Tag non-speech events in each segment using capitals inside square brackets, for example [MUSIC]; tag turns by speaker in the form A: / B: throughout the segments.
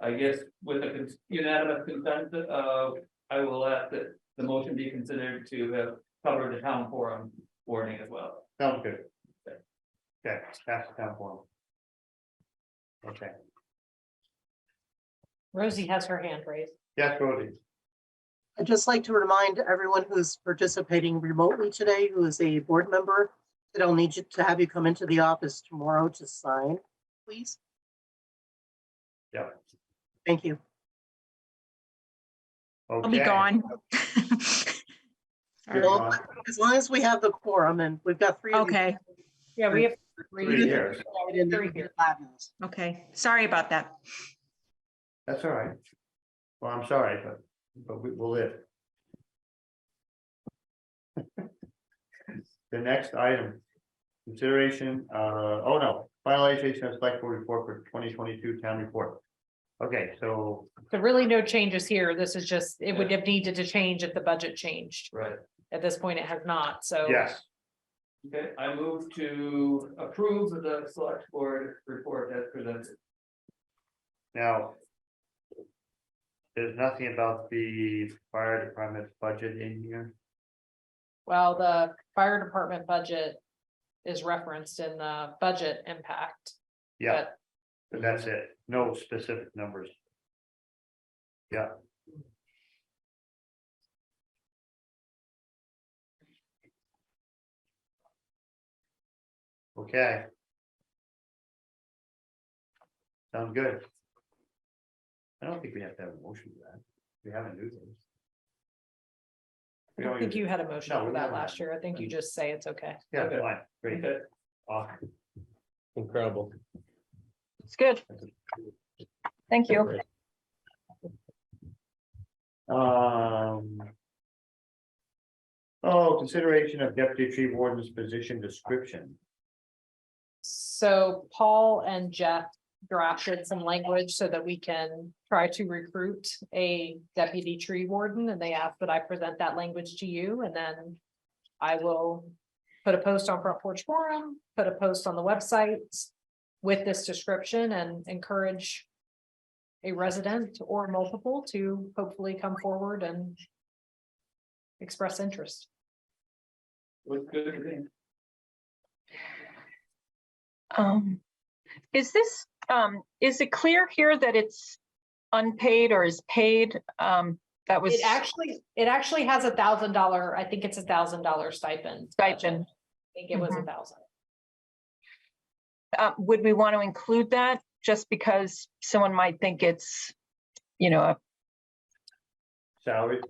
A: I guess with a cons- unanimous consent, uh, I will ask that the motion be considered to have covered the town forum warning as well.
B: Sounds good. Okay, that's the town forum. Okay,
C: Rosie has her hand raised.
B: yes, Rosie,
D: I'd just like to remind everyone who's participating remotely today, who is a board member, that I'll need you to have you come into the office tomorrow to sign, please.
B: Yep.
D: Thank you.
E: I'll be
B: Okay.
E: gone. [LAUGHS]
B: You're
D: Well,
B: gone.
D: As long as we have the quorum and we've got three. of you
E: Okay,
C: Yeah, we have.
B: Three years,
D: tonight, and then we
C: Three
D: get five minutes.
E: okay. Sorry about that. [LAUGHS]
B: that's all right. Well, I'm sorry, but, but we will live. [LAUGHS] The next item, consideration, uh, oh no, finalization of select board report for twenty twenty-two town report. Okay, so,
C: So really no changes here. This is just, it would have needed to change if the budget changed.
A: Right.
C: At this point, it has not, so.
B: yes,
A: Okay, I move to approve the select board report as presented.
B: now. There's nothing about the fire department budget in here,
C: Well, the fire department budget is referenced in the budget impact.
B: yeah,
C: but
B: but that's it, no specific numbers. Okay. Sounds good. I don't think we have to have a motion for that. We haven't do this.
C: I don't think you had a motion
B: No,
C: for
B: we
C: that
B: haven't.
C: last year. I think you just say it's okay.
B: Yeah, fine, great.
A: Okay,
B: Awesome.
F: Incredible.
E: It's good. Thank you.
B: Um. Oh, consideration of deputy tree warden's position description.
C: So Paul and Jeff drafted some language so that we can try to recruit a deputy tree warden, and they asked that I present that language to you, and then I will put a post on Front Porch Forum, put a post on the website with this description and encourage a resident or multiple to hopefully come forward and express interest.
A: looks good to me.
G: Um, is this, um, is it clear here that it's unpaid or is paid? Um, that was
C: It actually, it actually has a thousand dollar, I think it's a thousand dollar stipend.
G: stipend.
C: I think it was a thousand.
G: Uh, would we want to include that just because someone might think it's, you know, a,
B: Salary,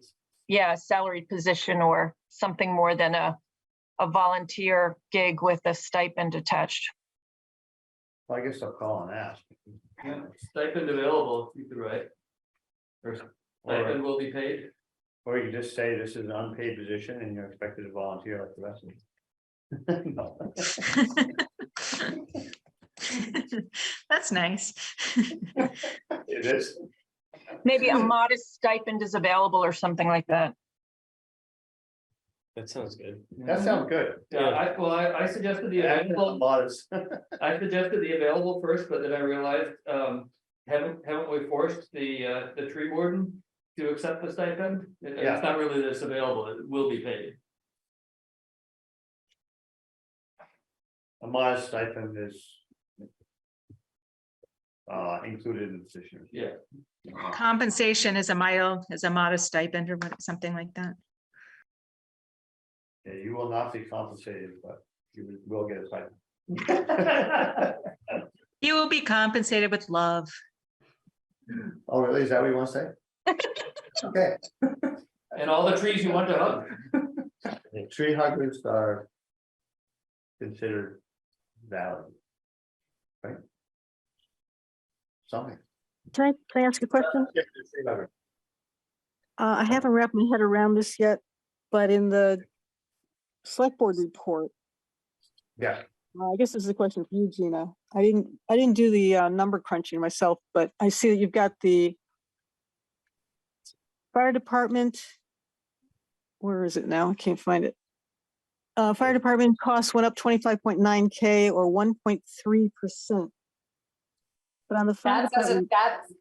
G: yeah, a salaried position or something more than a, a volunteer gig with a stipend attached?
B: Well, I guess I'll call and ask.
A: Yeah, Stipend available, you could write. Or stipend
B: Or,
A: will be paid.
B: or you just say this is an unpaid position and you're expected to volunteer like the rest of them. [LAUGHS] No.
E: That's nice.
B: It is,
G: Maybe a modest stipend is available or something like that.
F: That sounds good.
B: that sounds good.
A: Yeah, I, well, I, I suggested the available,
B: Modest.
A: I suggested the available first, but then I realized, um, haven't, haven't we forced the, uh, the tree warden to accept the stipend? It-
B: Yeah.
A: It's not really this available, it will be paid. [LAUGHS]
B: A modest stipend is. Uh, included in the position.
A: Yeah.
E: Compensation is a mild, is a modest stipend or what- something like that.
B: Yeah, you will not be compensated, but you will get a stipend.
E: You will be compensated with love.
B: Oh, really? Is that what you want to say? Okay,
A: And all the trees you want to hug.
B: tree huggers are. Considered valid. Right? Something.
H: Can I, can I ask a question?
B: Yeah, the tree hugger.
H: Uh, I haven't wrapped my head around this yet, but in the select board report,
B: Yeah,
H: uh, I guess this is a question for you, Gina. I didn't, I didn't do the, uh, number crunching myself, but I see that you've got the fire department. Where is it now? I can't find it. Uh, fire department costs went up twenty-five point nine K or one point three percent. But on the. fire
C: That doesn't,
H: department-
C: that,